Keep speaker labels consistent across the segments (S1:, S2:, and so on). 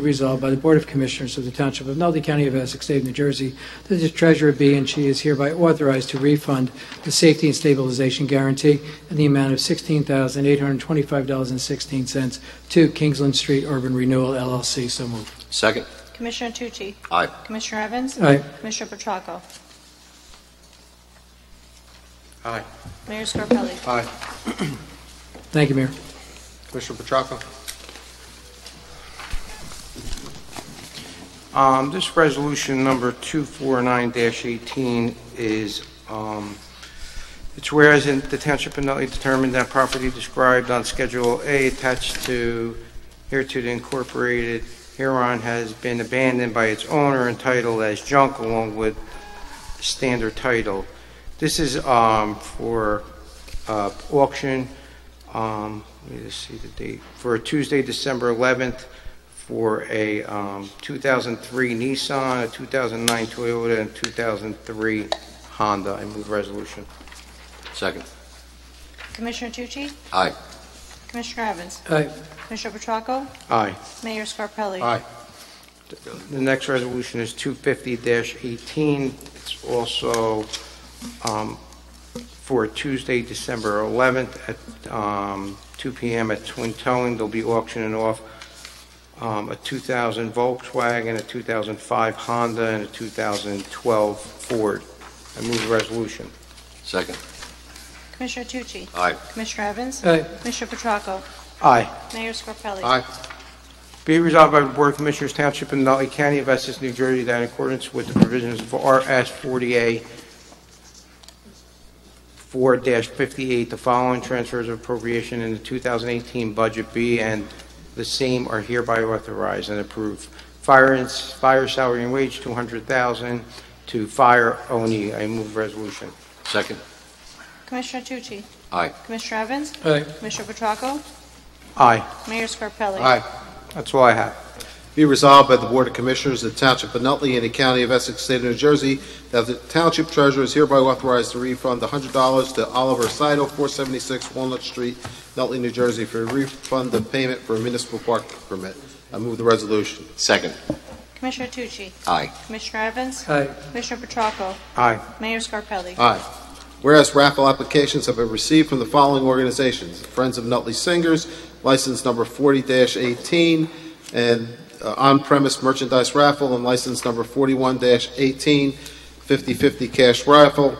S1: Be Resolved by the Board of Commissioners of the Township of Nutley County of Essex, State of New Jersey, that the treasurer be and she is hereby authorized to refund the safety and stabilization guarantee in the amount of $16,825.16 to Kingsland Street Urban Renewal LLC. So moved.
S2: Second.
S3: Commissioner Tucci?
S2: Aye.
S3: Commissioner Evans?
S1: Aye.
S3: Commissioner Petracco?
S4: Aye.
S3: Mayor Scarpelli?
S4: Aye.
S1: Thank you, Mayor.
S4: Commissioner Petracco? Um, This resolution number 249-18 is, um, it's whereas in the Township of Nutley determined that property described on Schedule A attached to hereto the incorporated Huron has been abandoned by its owner entitled as junk along with standard title. This is um, for uh, auction um, let me just see the date, for Tuesday, December 11th, for a um, 2003 Nissan, a 2009 Toyota, and 2003 Honda. I move resolution.
S2: Second.
S3: Commissioner Tucci?
S2: Aye.
S3: Commissioner Evans?
S1: Aye.
S3: Commissioner Petracco?
S4: Aye.
S3: Mayor Scarpelli?
S2: Aye.
S4: The next resolution is 250-18. It's also um, for Tuesday, December 11th at um, 2 PM at Twin Towing. They'll be auctioning off um, a 2000 Volkswagen, a 2005 Honda, and a 2012 Ford. I move the resolution.
S2: Second.
S3: Commissioner Tucci?
S2: Aye.
S3: Commissioner Evans?
S1: Aye.
S3: Commissioner Petracco?
S4: Aye.
S3: Mayor Scarpelli?
S2: Aye.
S4: Be it resolved by the Board of Commissioners Township of Nutley County of Essex, New Jersey, that in accordance with the provisions of RS 40A 4-58, the following transfers of appropriation in the 2018 budget be and the same are hereby authorized and approved. Fire and, fire salary and wage, 200,000 to fire only. I move resolution.
S2: Second.
S3: Commissioner Tucci?
S2: Aye.
S3: Commissioner Evans?
S1: Aye.
S3: Commissioner Petracco?
S4: Aye.
S3: Mayor Scarpelli?
S4: That's all I have.
S5: Be resolved by the Board of Commissioners of the Township of Nutley and the County of Essex, State of New Jersey, that the Township Treasurer is hereby authorized to refund $100 to Oliver Seidel, 476 Walnut Street, Nutley, New Jersey, for refund of payment for a municipal park permit. I move the resolution.
S2: Second.
S3: Commissioner Tucci?
S2: Aye.
S3: Commissioner Evans?
S1: Aye.
S3: Commissioner Petracco?
S4: Aye.
S3: Mayor Scarpelli?
S5: Aye. Whereas raffle applications have been received from the following organizations: Friends of Nutley Singers, license number 40-18, and uh, on-premise merchandise raffle, and license number 41-18, 50/50 cash raffle,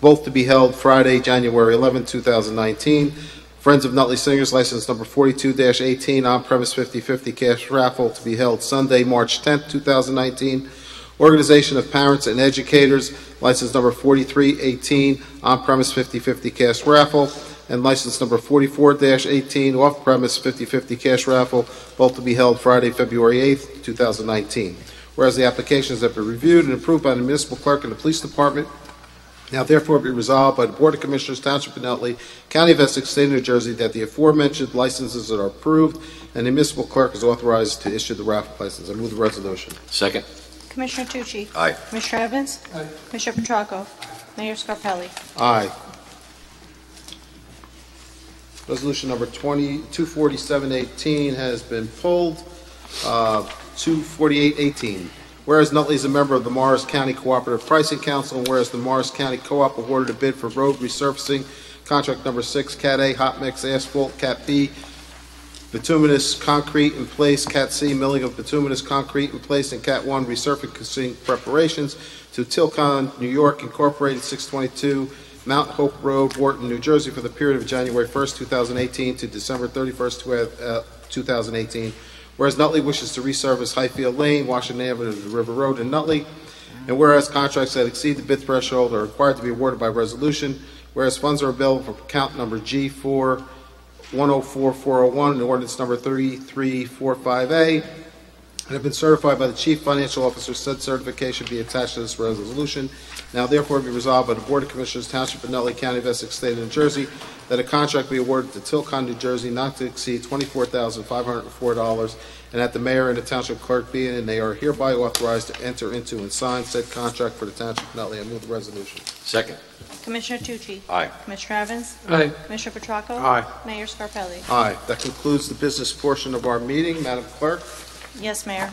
S5: both to be held Friday, January 11, 2019. Friends of Nutley Singers, license number 42-18, on-premise 50/50 cash raffle to be held Sunday, March 10, 2019. Organization of Parents and Educators, license number 4318, on-premise 50/50 cash raffle, and license number 44-18, off-premise 50/50 cash raffle, both to be held Friday, February 8th, 2019. Whereas the applications have been reviewed and approved by the municipal clerk and the police department, now therefore be resolved by the Board of Commissioners, Township of Nutley, County of Essex, State of New Jersey, that the aforementioned licenses are approved, and the municipal clerk is authorized to issue the raffle license. I move the resolution.
S2: Second.
S3: Commissioner Tucci?
S2: Aye.
S3: Commissioner Evans?
S1: Aye.
S3: Commissioner Petracco? Mayor Scarpelli?
S5: Aye. Resolution number 20, 24718 has been pulled. Uh, 24818, whereas Nutley is a member of the Morris County Cooperative Pricing Council, and whereas the Morris County Co-op awarded a bid for road resurfacing, contract number 6, Cat A, hot mix asphalt, Cat B, bituminous concrete in place, Cat C, milling of bituminous concrete in place, and Cat 1, resurfacing preparations to Tilcon New York Incorporated, 622 Mount Hope Road, Wharton, New Jersey, for the period of January 1st, 2018 to December 31st, twe- uh, 2018. Whereas Nutley wishes to resurface Highfield Lane, Washington Avenue to River Road in Nutley. And whereas contracts that exceed the bid threshold are required to be awarded by resolution. Whereas funds are available for account number G4104401 and ordinance number 3345A and have been certified by the Chief Financial Officer, said certification be attached to this resolution. Now therefore be resolved by the Board of Commissioners, Township of Nutley County of Essex, State of New Jersey, that a contract be awarded to Tilcon, New Jersey, not to exceed twenty-four thousand five hundred and four dollars, and that the mayor and the township clerk be and they are hereby authorized to enter into and sign said contract for the Township of Nutley. I move the resolution.
S2: Second.
S3: Commissioner Tucci?
S2: Aye.
S3: Commissioner Evans?
S1: Aye.
S3: Commissioner Petracco?
S4: Aye.
S3: Mayor Scarpelli?
S5: Aye. That concludes the business portion of our meeting. Madam Clerk?
S3: Yes, Mayor.